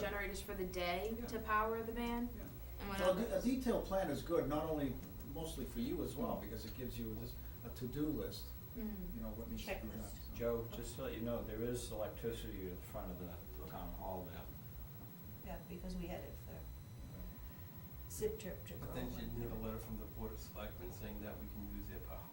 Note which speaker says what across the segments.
Speaker 1: usage for the day
Speaker 2: Yeah.
Speaker 1: to power the van
Speaker 2: Yeah.
Speaker 1: and
Speaker 2: So a
Speaker 1: whatever.
Speaker 2: de- a detailed plan is good, not only mostly for you as well, because it gives you just a to-do list,
Speaker 1: Hmm.
Speaker 2: you know, what needs to be done.
Speaker 3: Checklist.
Speaker 2: so.
Speaker 4: Joe, just to let you know, there is electricity in front of the town hall there.
Speaker 3: Yeah, because we had it for zip trip to
Speaker 5: But
Speaker 3: Berlin.
Speaker 5: then she'd need a letter from the board of selectmen saying that we can use their power.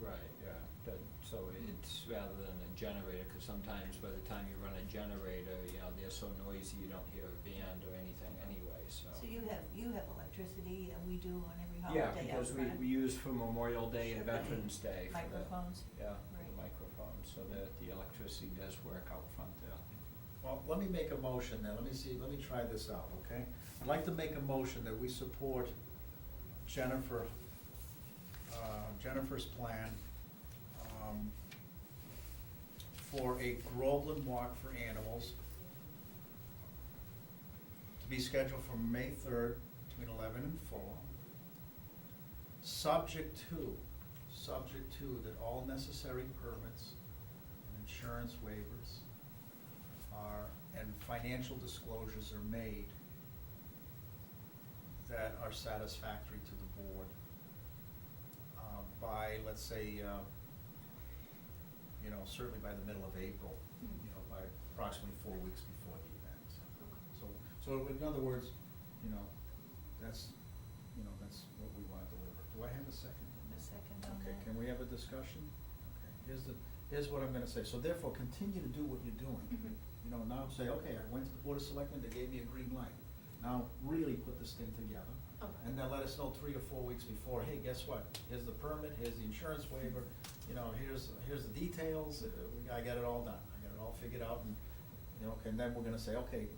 Speaker 4: Right, yeah. But, so it's rather than a generator, cause sometimes by the time you run a generator, you know, they're so noisy, you don't hear a band or anything anyway, so.
Speaker 3: So you have, you have electricity and we do on every
Speaker 4: Yeah,
Speaker 3: holiday out
Speaker 4: because we,
Speaker 3: front.
Speaker 4: we use for Memorial Day and
Speaker 3: Sure, but
Speaker 4: Veterans Day for the.
Speaker 3: microphones,
Speaker 4: Yeah, for
Speaker 3: right.
Speaker 4: the microphones, so that the electricity does work out front there.
Speaker 2: Well, let me make a motion then, let me see, let me try this out, okay? I'd like to make a motion that we support Jennifer, uh, Jennifer's plan, um, for a Groveland Walk for Animals to be scheduled for May third, between eleven and four. Subject to, subject to that all necessary permits and insurance waivers are, and financial disclosures are made that are satisfactory to the board uh, by, let's say, uh, you know, certainly by the middle of April, you know, by approximately four weeks before the event. So, so in other words, you know, that's, you know, that's what we want to deliver. Do I have a second?
Speaker 3: a second on
Speaker 2: Okay,
Speaker 3: that.
Speaker 2: can we have a discussion? Okay, here's the, here's what I'm gonna say. So therefore, continue to do what you're doing.
Speaker 3: Mm-hmm.
Speaker 1: Mhm.
Speaker 2: You know, now say, okay, I went to the Board of Selectmen, they gave me a green light. Now really put this thing together.
Speaker 1: Okay.
Speaker 2: And uh, then let us know three or four weeks before, hey, guess what? Here's the permit, here's the insurance waiver, you know, here's, here's the details, uh, we- I got it all done. I got it all figured out and, you know, and then we're gonna say, okay,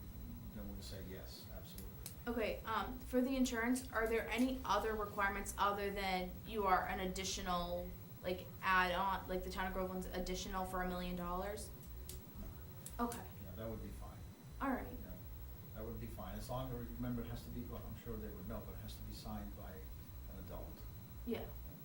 Speaker 2: then we're gonna say yes, absolutely.
Speaker 1: Okay, um, for the insurance, are there any other requirements other than you are an additional, like, add-on, like the town of Groveland's additional for a million dollars? Okay,
Speaker 2: Yeah, that would be fine.
Speaker 1: all right,
Speaker 2: Yeah, That would be fine, as long as, remember, it has to be, well, I'm sure they would know, but it has to be signed by an adult.
Speaker 1: yeah.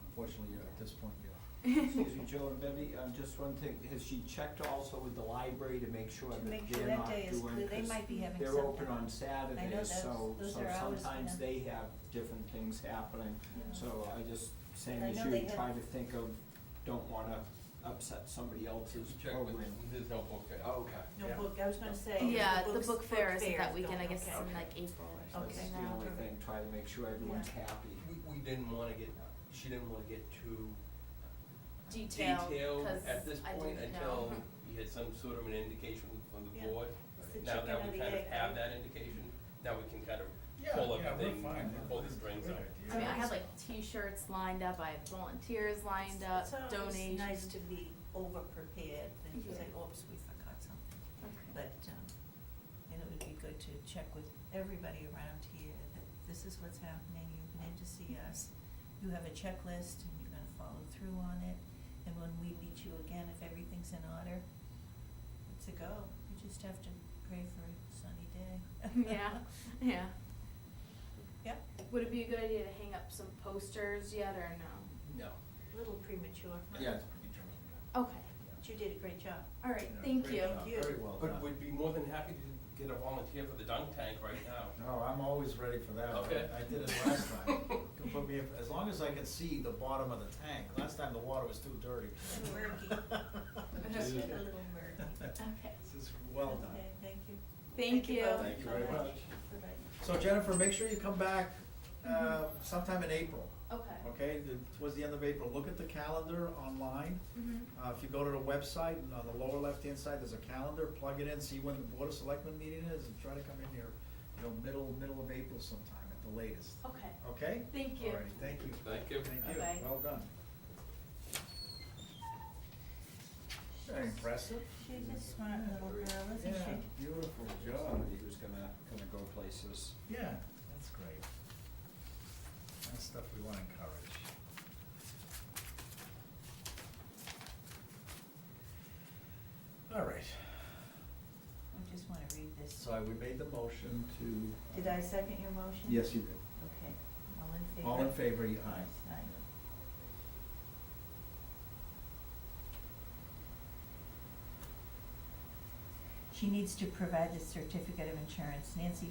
Speaker 2: Unfortunately, you're at this point, you're.
Speaker 4: Excuse me, Joe and Betty, um, just one thing, has she checked also with the library to make sure
Speaker 3: To make
Speaker 4: that
Speaker 3: sure
Speaker 4: they're
Speaker 3: that
Speaker 4: not
Speaker 3: day is
Speaker 4: doing,
Speaker 3: clear. They
Speaker 4: cause
Speaker 3: might be having
Speaker 4: they're
Speaker 3: something.
Speaker 4: open
Speaker 3: I know
Speaker 4: on Saturdays,
Speaker 3: that's-
Speaker 4: so,
Speaker 3: those
Speaker 4: so
Speaker 3: are hours for
Speaker 4: sometimes
Speaker 3: them.
Speaker 4: they have different things happening.
Speaker 3: Yeah.
Speaker 4: So I just, same
Speaker 3: I
Speaker 4: as
Speaker 3: know they
Speaker 4: you,
Speaker 3: have-
Speaker 4: try to think of, don't wanna upset somebody
Speaker 2: Oh,
Speaker 4: else's
Speaker 5: Check
Speaker 4: program.
Speaker 5: with, there's no book fair.
Speaker 4: Okay.
Speaker 3: No
Speaker 2: Yeah.
Speaker 3: book, I was gonna say.
Speaker 1: Yeah, the
Speaker 3: books-
Speaker 1: book fair is
Speaker 3: fair
Speaker 1: that weekend, I
Speaker 3: going,
Speaker 1: guess, it's
Speaker 3: okay.
Speaker 1: in like April or
Speaker 4: That's
Speaker 1: something.
Speaker 3: Okay.
Speaker 4: the
Speaker 3: now.
Speaker 4: only thing, try to make sure everyone's happy.
Speaker 5: We, we didn't wanna get, she didn't wanna get too
Speaker 1: Detail,
Speaker 5: detailed
Speaker 1: 'cause
Speaker 5: at this
Speaker 1: I
Speaker 5: point
Speaker 1: didn't know.
Speaker 5: until we had some sort of an indication from
Speaker 3: Yeah.
Speaker 5: the board.
Speaker 3: It's the
Speaker 5: Now
Speaker 3: chicken or
Speaker 5: that we
Speaker 3: the
Speaker 5: kind of
Speaker 3: egg,
Speaker 5: have
Speaker 3: right?
Speaker 5: that indication, now we can kind of
Speaker 2: Yeah,
Speaker 5: pull
Speaker 2: yeah, we're
Speaker 5: everything,
Speaker 2: fine.
Speaker 5: pull the strings out.
Speaker 1: I mean, I had like T-shirts lined up, I had volunteers lined up,
Speaker 3: It's always
Speaker 1: donations.
Speaker 3: nice to be over prepared than to
Speaker 1: Yeah.
Speaker 3: say, oops, we forgot something.
Speaker 1: Okay.
Speaker 3: But, um, and it would be good to check with everybody around here that this is what's happening, you've been in to see us. You have a checklist and you're gonna follow through on it. And when we meet you again, if everything's in order, it's a go. You just have to pray for a sunny day.
Speaker 1: Yeah, yeah.
Speaker 3: Yep,
Speaker 1: Would it be a good idea to hang up some posters yet or no?
Speaker 5: No.
Speaker 3: a little premature.
Speaker 2: Yeah, it's pretty true.
Speaker 1: Okay,
Speaker 3: But you did a great job.
Speaker 1: all right, thank you.
Speaker 3: job. you.
Speaker 2: Very well
Speaker 5: But
Speaker 2: done.
Speaker 5: we'd be more than happy to get a volunteer for the dunk tank right now.
Speaker 2: No, I'm always ready for that. I-
Speaker 5: Okay.
Speaker 2: I did it last time. You can put me, in- as long as I can see the bottom of the tank. Last time the water was too dirty.
Speaker 3: Little murky.
Speaker 1: Just
Speaker 3: a little murky.
Speaker 1: Okay.
Speaker 2: This is well done.
Speaker 3: Okay, thank you.
Speaker 1: Thank you.
Speaker 3: both
Speaker 2: Thank you
Speaker 3: so
Speaker 2: very much.
Speaker 3: Bye-bye.
Speaker 2: So Jennifer, make sure you come back,
Speaker 3: Mm-hmm.
Speaker 2: uh, sometime in April,
Speaker 1: Okay.
Speaker 2: okay? The- Towards the end of April. Look at the calendar online.
Speaker 1: Mhm.
Speaker 2: Uh, if you go to the website, and on the lower left-hand side, there's a calendar, plug it in, see when the Board of Selectmen meeting is, and try to come in here, you know, middle, middle of April sometime at the latest,
Speaker 1: Okay.
Speaker 2: okay?
Speaker 1: Thank you.
Speaker 2: All righty, thank you.
Speaker 5: Thank you.
Speaker 2: Thank you,
Speaker 1: Bye-bye.
Speaker 2: well done. Very impressive.
Speaker 3: She's a smart little girl, isn't
Speaker 2: Yeah,
Speaker 3: she?
Speaker 2: beautiful job.
Speaker 4: Somebody who's gonna, gonna go places.
Speaker 2: Yeah, that's great. That's stuff we wanna encourage. All right.
Speaker 3: I just wanna read this.
Speaker 2: So we made the motion to. uh,
Speaker 3: Did I second your motion?
Speaker 2: Yes, you did.
Speaker 3: Okay, all in favor?
Speaker 2: All in favor, ye- aye.
Speaker 3: Aye. She needs to provide the certificate of insurance. Nancy